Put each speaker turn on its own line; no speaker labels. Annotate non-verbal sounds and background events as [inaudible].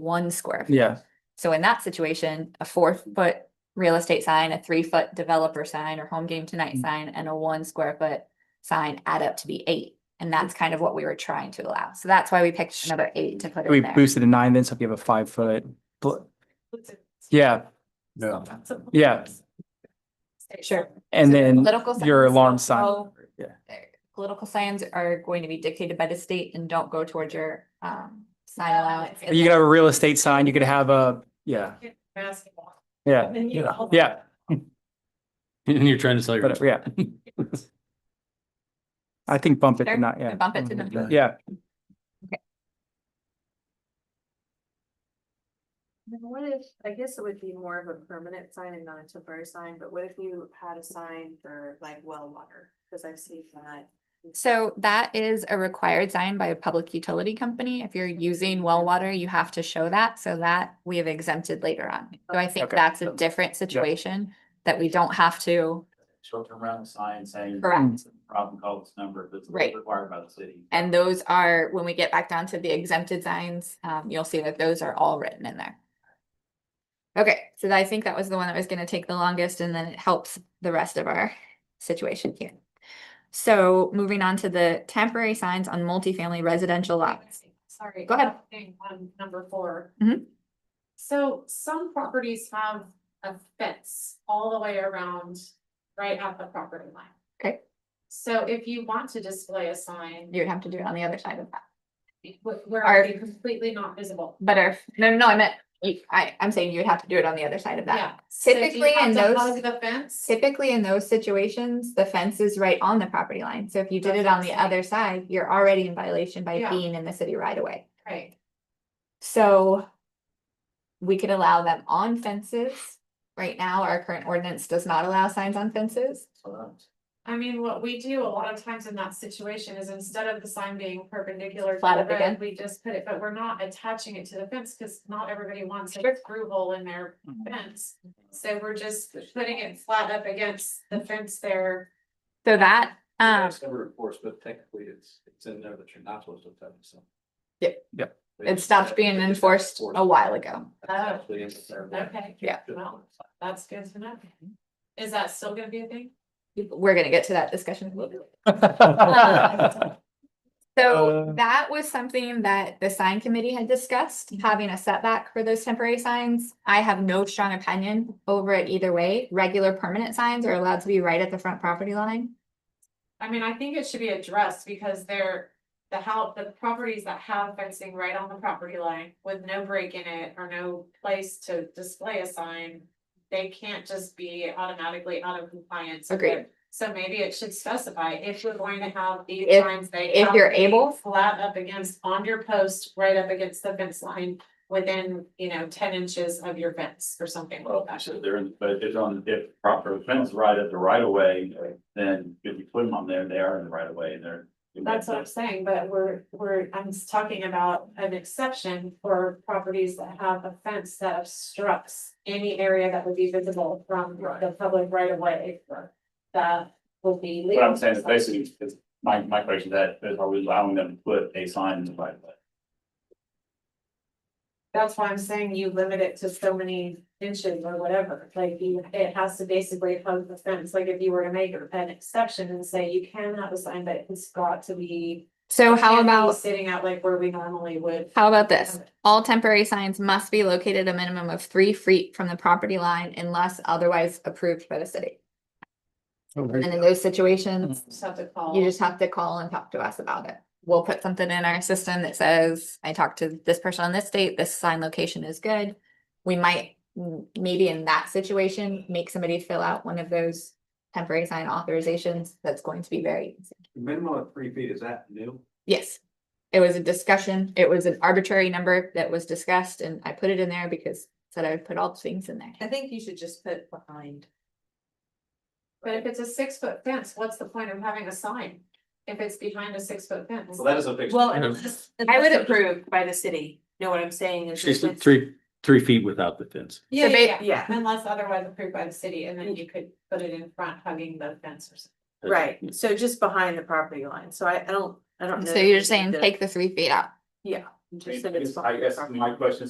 one square. foot.
Yeah,
So in that situation, a four foot real estate sign, a three foot developer sign or home game tonight
Mm.
sign and a one square foot sign add up to be eight. And that's kind of what we were trying to allow. So that's why we picked another eight to put
we
in there.
boosted a nine then, so if you have a five foot, bl- yeah,
Yeah.
yeah.
Sure.
And
So
then
political signs
Mm, your alarm
don't
sign,
go-
yeah.
their Political signs are going to be dictated by the state and don't go towards your um sign allowance. and
you could
then-
have a real estate sign, you could have a, yeah,
Basketball.
yeah, yeah,
[laughs] And you're trying to sell your.
[laughs]
but yeah. I think bump it to
Sure,
nine, yeah. Mm-hmm.
bump it to nine. [laughs]
Yeah,
Then What if, I guess it would be more of a permanent sign and not a temporary sign, but what if you had a sign for like well water? Cause I've seen that.
So that is a required sign by a public utility company. If you're using well water, you have to show that. So that we have exempted later on. So I think
Okay.
that's a different situation that we don't have to,
short-term rental sign saying.
Correct.
Problem call this number that's
Right.
required by the city.
and those are, when we get back down to the exempted signs, um, you'll see that those are all written in there. Okay, so I think that was the one that was gonna take the longest and then it helps the rest of our situation here. So moving on to the temporary signs on multifamily residential lots.
Sorry.
Go ahead.
thing on number four.
Mhm.
So some properties have a fence all the way around, right at the property line.
Okay.
So if you want to display a sign,
You'd have to do it on the other side of that.
wh- where
Are-
it'd be completely not visible.
But if, no, no, I meant, you- I, I'm saying you would have to do it on the other side of
Yeah.
that.
So do you
Typically
have
in
to
those-
hug The fence.
Typically, in those situations, the fence is right on the property line, so if you did it on the other side, you're already in violation by
Yeah.
being in the city right away.
Right,
So. We could allow them on fences. Right now, our current ordinance does not allow signs on fences.
So that's-
I mean, what we do a lot of times in that situation is instead of the sign being perpendicular. to
Flat
the
up again.
road, We just put it, but we're not attaching it to the fence, cause not everybody wants a
Sure.
screw hole in their
Mhm.
fence. So we're just putting it flat up against the fence there.
So that, um,
It's never enforced, but technically it's, it's in there that you're not supposed to touch, so.
Yep.
Yep.
it stopped being enforced a while ago.
Okay.
Yeah.
Well, that's good to know. Is that still gonna be a thing?
We're gonna get to that discussion a little bit. later.
Uh,
So that was something that the sign committee had discussed, having a setback for those temporary signs. I have no strong opinion over it either way. Regular permanent signs are allowed to be right at the front property line.
I mean, I think it should be addressed because they're. The how, the properties that have fencing right on the property line with no break in it or no place to display a sign. They can't just be automatically out of compliance. with
Agreed.
it. So maybe it should specify if we're going to have these
If-
signs, they.
if
have
you're
to be
able.
Flat up against, on your post, right up against the fence line, within, you know, ten inches of your fence or something
Well,
like
I
that.
said they're in, but if on, if proper fence right at the right of way, then if you put them on there, they are in the right of way and they're.
That's what I'm saying, but we're, we're, I'm s- talking about an exception for properties that have a fence that obstructs any area that would be visible from
Right.
the public right of way. That will be
What
legal.
I'm saying is basically, is my, my question to that is are we allowing them to put a sign in the right of way?
That's why I'm saying you limit it to so many inches or whatever, like you, it has to basically hug the fence, like if you were to make an exception and say you can have a sign, but it's got to be.
So
can't
how
be
about,
Sitting out like where we normally would.
how about this? All temporary signs must be located a minimum of three feet from the property line unless otherwise approved by the city. And in those situations,
Just have to call.
You just have to call and talk to us about it. We'll put something in our system that says, I talked to this person on this date, this sign location is good. We might, m- maybe in that situation, make somebody fill out one of those temporary sign authorizations. That's going to be very, easy.
Minimum of three feet, is that new?
yes. It was a discussion. It was an arbitrary number that was discussed and I put it in there because said I would put all the things in there.
I think you should just put behind.
But if it's a six foot fence, what's the point of having a sign? If it's behind a six foot fence?
Well, that is a fixed.
Well,
Yeah.
unless, unless approved by the city, know what I'm saying? is
She's
if it's-
three, three feet without the fence.
Yeah,
So ba-
yeah, yeah,
yeah.
unless otherwise approved by the city, and then you could put it in front hugging the fence or something.
Right, so just behind the property line, so I, I don't, I don't know.
So
if
you're
you
saying
need to-
take the three feet out.
Yeah.
I mean,
just that it's
I
behind the
guess
property
my question is